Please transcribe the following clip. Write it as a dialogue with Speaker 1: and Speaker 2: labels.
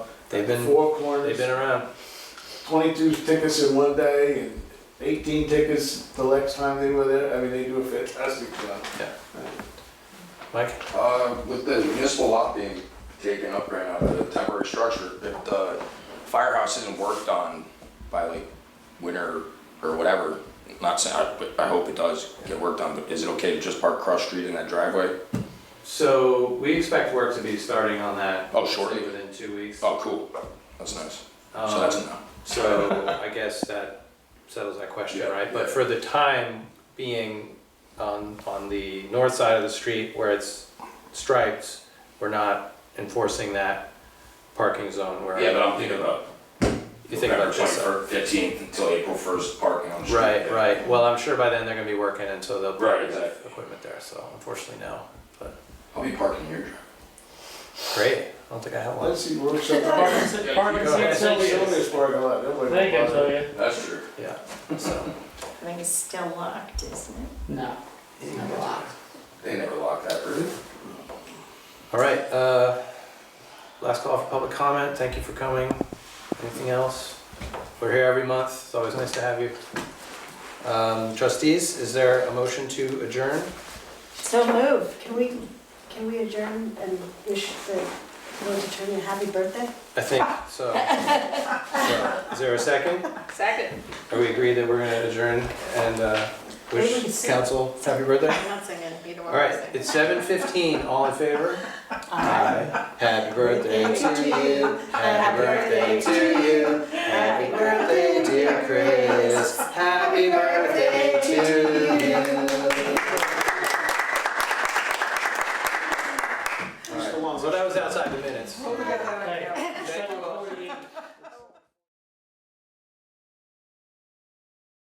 Speaker 1: They've been,
Speaker 2: Four
Speaker 1: they've
Speaker 2: corners,
Speaker 1: been around.
Speaker 2: twenty-two tickets in one day and eighteen tickets the next time they were there. I mean, they do a fantastic job.
Speaker 1: Mike?
Speaker 3: Uh, With the municipal lot being taken up right now, the temporary structure, if the firehouse isn't worked on by like winter or whatever, not saying, I- but I hope it does get worked on, but is it okay to just park cross street in that driveway?
Speaker 1: So we expect work to be starting on that.
Speaker 3: Oh, shortly.
Speaker 1: say Within two weeks.
Speaker 3: Oh, cool, that's nice, so
Speaker 1: Um,
Speaker 3: that's a no.
Speaker 1: So I guess that settles that question,
Speaker 3: Yeah,
Speaker 1: right? But
Speaker 3: yeah.
Speaker 1: for the time being, on, on the north side of the street where it's striped, we're not enforcing that parking zone where.
Speaker 3: about.
Speaker 1: You think about this side.
Speaker 3: Fifteenth until April first, parking on the
Speaker 1: Right, right. Well, I'm sure by then they're gonna be working and so they'll
Speaker 3: Right,
Speaker 1: probably have
Speaker 3: exactly.
Speaker 1: equipment there, so unfortunately no.
Speaker 3: I'll be parking here.
Speaker 1: Great, I don't think I have one.
Speaker 2: Let's see, we're something.
Speaker 4: Apartment
Speaker 1: Yeah,
Speaker 4: six
Speaker 2: That's only Sylvia's
Speaker 4: Sylvia's.
Speaker 2: parking lot. Nobody
Speaker 4: They can
Speaker 2: bothers.
Speaker 4: tell you.
Speaker 3: That's true.
Speaker 1: Yeah, so.
Speaker 5: I think it's still locked, isn't it?
Speaker 4: No. Never locked.
Speaker 3: They never lock that, really?
Speaker 1: All right, uh, last call for public comment. Thank you for coming. Anything else? We're here every month. It's always nice to have you. Um, trustees, is there a motion to adjourn?
Speaker 6: So move. Can we, can we adjourn and wish the, we'll determine happy birthday?
Speaker 1: I think so. So, Is there a second?
Speaker 5: Second.
Speaker 1: Are we agreed that we're gonna adjourn and, uh,
Speaker 6: Maybe we
Speaker 1: wish
Speaker 6: can-
Speaker 1: council happy birthday?
Speaker 5: I'm not singing, you don't
Speaker 1: All
Speaker 5: want to
Speaker 1: right,
Speaker 5: sing.
Speaker 1: it's seven fifteen, all in favor? Aye. Happy birthday to you, happy birthday to you, happy birthday dear Chris, happy birthday to you.